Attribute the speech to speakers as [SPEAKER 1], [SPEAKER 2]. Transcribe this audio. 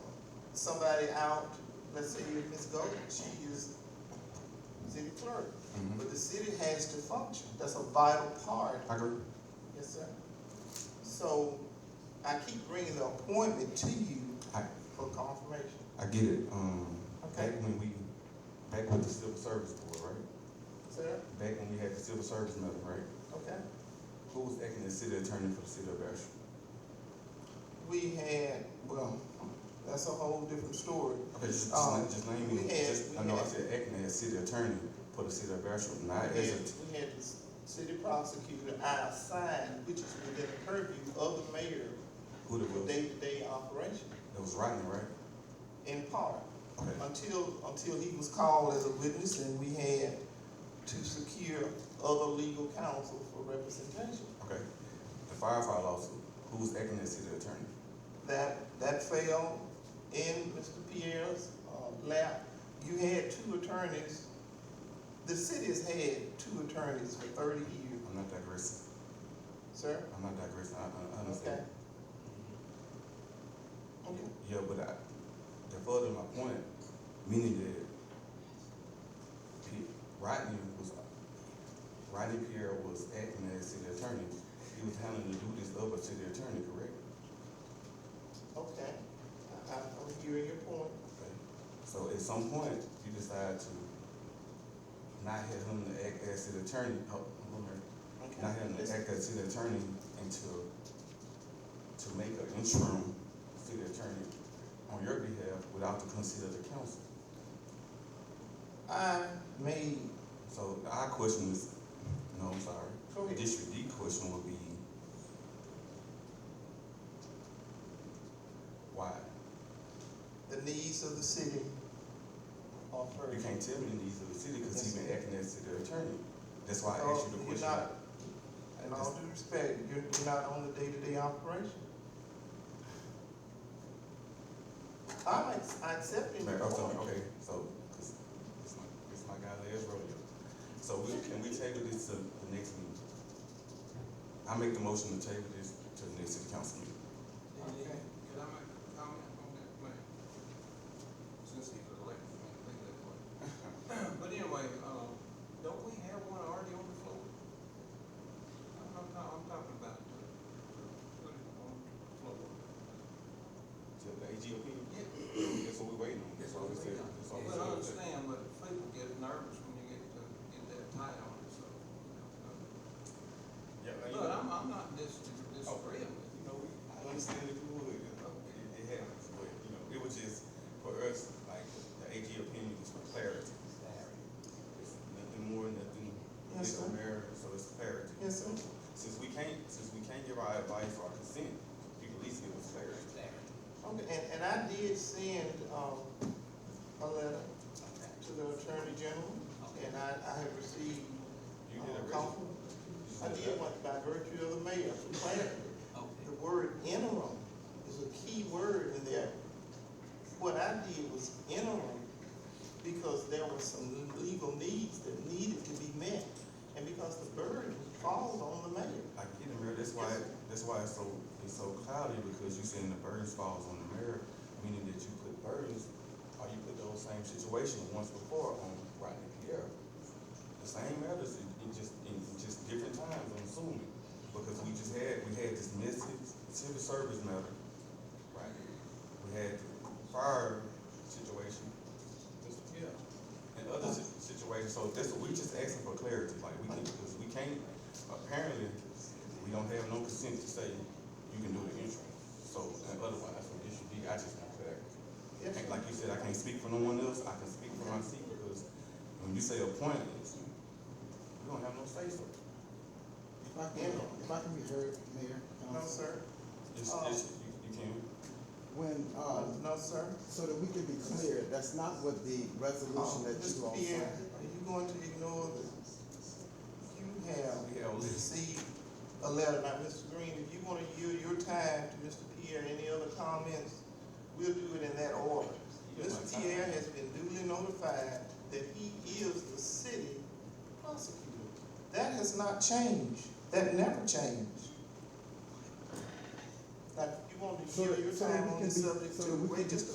[SPEAKER 1] somebody out, let's say if Ms. Golden, she is city clerk, but the city has to function, that's a vital part.
[SPEAKER 2] I agree.
[SPEAKER 1] Yes, sir. So I keep bringing the appointment to you
[SPEAKER 2] I,
[SPEAKER 1] for confirmation.
[SPEAKER 2] I get it. Um,
[SPEAKER 1] Okay.
[SPEAKER 2] back when we, back with the civil service board, right?
[SPEAKER 1] Sir,
[SPEAKER 2] Back when we had the civil service nothing, right?
[SPEAKER 1] okay.
[SPEAKER 2] Who was acting as city attorney for the city of Bastrop?
[SPEAKER 1] We had, well, that's a whole different story.
[SPEAKER 2] Okay, just, just,
[SPEAKER 1] Um,
[SPEAKER 2] name- just name
[SPEAKER 1] we
[SPEAKER 2] me.
[SPEAKER 1] had-
[SPEAKER 2] Just, I
[SPEAKER 1] we
[SPEAKER 2] know I
[SPEAKER 1] had-
[SPEAKER 2] said acting as city attorney for the city of Bastrop, not
[SPEAKER 1] We
[SPEAKER 2] as
[SPEAKER 1] had,
[SPEAKER 2] a
[SPEAKER 1] we had the city prosecutor outside, which is within the purview of the mayor
[SPEAKER 2] who the
[SPEAKER 1] for
[SPEAKER 2] was. That
[SPEAKER 1] day-to-day operation,
[SPEAKER 2] was Rodney, right?
[SPEAKER 1] in part.
[SPEAKER 2] Okay.
[SPEAKER 1] Until, until he was called as a witness and we had to secure other legal counsel for representation.
[SPEAKER 2] Okay. The firefighter lawsuit. Who was acting as city attorney?
[SPEAKER 1] That, that fell in Mr. Pierre's uh, lap. You had two attorneys, the city's had two attorneys for thirty years,
[SPEAKER 2] I'm not digressing.
[SPEAKER 1] sir.
[SPEAKER 2] I'm not digressing. I, I, I
[SPEAKER 1] Okay.
[SPEAKER 2] understand.
[SPEAKER 1] Okay,
[SPEAKER 2] Yeah, but I, to further my point, meaning that P- Rodney was, Rodney Pierre was acting as city attorney. He was handling the duties of a city attorney, correct?
[SPEAKER 1] okay. I, I'm hearing your point.
[SPEAKER 2] Okay. So at some point, you decide to not have him to act as city attorney, oh, hold on.
[SPEAKER 1] Okay.
[SPEAKER 2] not having to act as city attorney until, to make an interim city attorney on your behalf without the consent of the council.
[SPEAKER 1] I made,
[SPEAKER 2] So our question is, no, I'm sorry.
[SPEAKER 1] Go ahead.
[SPEAKER 2] District D question would be, why?
[SPEAKER 1] the needs of the city are
[SPEAKER 2] You
[SPEAKER 1] first.
[SPEAKER 2] can't tell me the needs of the city because he's been acting as city attorney. That's why I
[SPEAKER 1] So
[SPEAKER 2] asked
[SPEAKER 1] Oh,
[SPEAKER 2] you the
[SPEAKER 1] you're
[SPEAKER 2] question.
[SPEAKER 1] not, in all due respect, you're you're not on the day-to-day operation. I'm ex- accepting your
[SPEAKER 2] Like, I'm sorry,
[SPEAKER 1] point.
[SPEAKER 2] okay, so, 'cause it's my, it's my guy last rodeo. So we, can we table this to the next meeting? I make the motion to table this to the next city council meeting.
[SPEAKER 1] Okay.
[SPEAKER 3] Can I make a comment on that plan? Since he's elected, I can think that way. But anyway, um, don't we have one already on the floor? I'm, I'm, not- I'm talking about the, the, on the floor.
[SPEAKER 2] To the AG opinion,
[SPEAKER 3] Yeah,
[SPEAKER 2] that's what we waiting on, that's all we said, that's all we
[SPEAKER 3] But I
[SPEAKER 2] said.
[SPEAKER 3] understand, but people get nervous when you get to, get that tight on it, so. you know.
[SPEAKER 2] Yeah, I-
[SPEAKER 3] But I'm, I'm not dis, disagreeing with
[SPEAKER 2] You
[SPEAKER 3] you.
[SPEAKER 2] know, we, I understand if you would, you know, it, it happens, but, you know, it was just, for us, like, the AG opinion was for clarity. It's nothing more, nothing,
[SPEAKER 1] Yes,
[SPEAKER 2] it's
[SPEAKER 1] sir.
[SPEAKER 2] a matter, so it's clarity.
[SPEAKER 1] Yes, sir.
[SPEAKER 2] Since we can't, since we can't give our advice or consent, you can at least give us clarity.
[SPEAKER 1] Okay, and, and I did send, um, a letter to the Attorney General, and I, I have received,
[SPEAKER 2] You
[SPEAKER 1] uh,
[SPEAKER 2] did a
[SPEAKER 1] call.
[SPEAKER 2] resume.
[SPEAKER 1] I did one by virtue of the mayor, for clarity. The word interim is a key word in there. What I did was interim because there were some legal needs that needed to be met, and because the burden falls on the mayor.
[SPEAKER 2] I get it, Mayor, that's why, that's why it's so, it's so cloudy, because you saying the burdens falls on the mayor, meaning that you put burdens, or you put those same situation once before on Rodney Pierre. The same matters, in, in just, in just different times, I'm assuming, because we just had, we had this message, civil service matter, right? We had the fire situation, Mr. Pierre, and other si- situations, so that's, we just asking for clarity, like, we can, because we can't, apparently, we don't have no consent to say you can do the interim. So, and otherwise, so it should be, I just want clarity.
[SPEAKER 1] Yes, sir.
[SPEAKER 2] And Like you said, I can't speak for no one else, I can speak for my seat, because when you say appointed, you don't have no say so.
[SPEAKER 4] If I can, if I can be heard, Mayor,
[SPEAKER 1] No,
[SPEAKER 4] um,
[SPEAKER 1] sir.
[SPEAKER 2] It's,
[SPEAKER 1] Oh.
[SPEAKER 2] it's, you, you can,
[SPEAKER 4] when,
[SPEAKER 1] Uh,
[SPEAKER 4] um,
[SPEAKER 1] No, sir.
[SPEAKER 4] so that we can be clear, that's not what the
[SPEAKER 1] Oh,
[SPEAKER 4] resolution that you
[SPEAKER 1] Mr.
[SPEAKER 4] all
[SPEAKER 1] Pierre,
[SPEAKER 4] signed.
[SPEAKER 1] are you going to ignore this? You have
[SPEAKER 2] we have a list.
[SPEAKER 1] received a letter. Now, Mr. Green, if you want to yield your time to Mr. Pierre, any other comments, we'll do it in that order.
[SPEAKER 2] You got my
[SPEAKER 1] Mr.
[SPEAKER 2] time.
[SPEAKER 1] Pierre has been duly notified that he is the city prosecutor. That has not changed. That never changed. Now, if you want to
[SPEAKER 4] So
[SPEAKER 1] yield
[SPEAKER 4] that,
[SPEAKER 1] your
[SPEAKER 4] so that
[SPEAKER 1] time
[SPEAKER 4] we
[SPEAKER 1] on
[SPEAKER 4] can be,
[SPEAKER 1] this subject
[SPEAKER 4] so that
[SPEAKER 1] to
[SPEAKER 4] we can be
[SPEAKER 1] register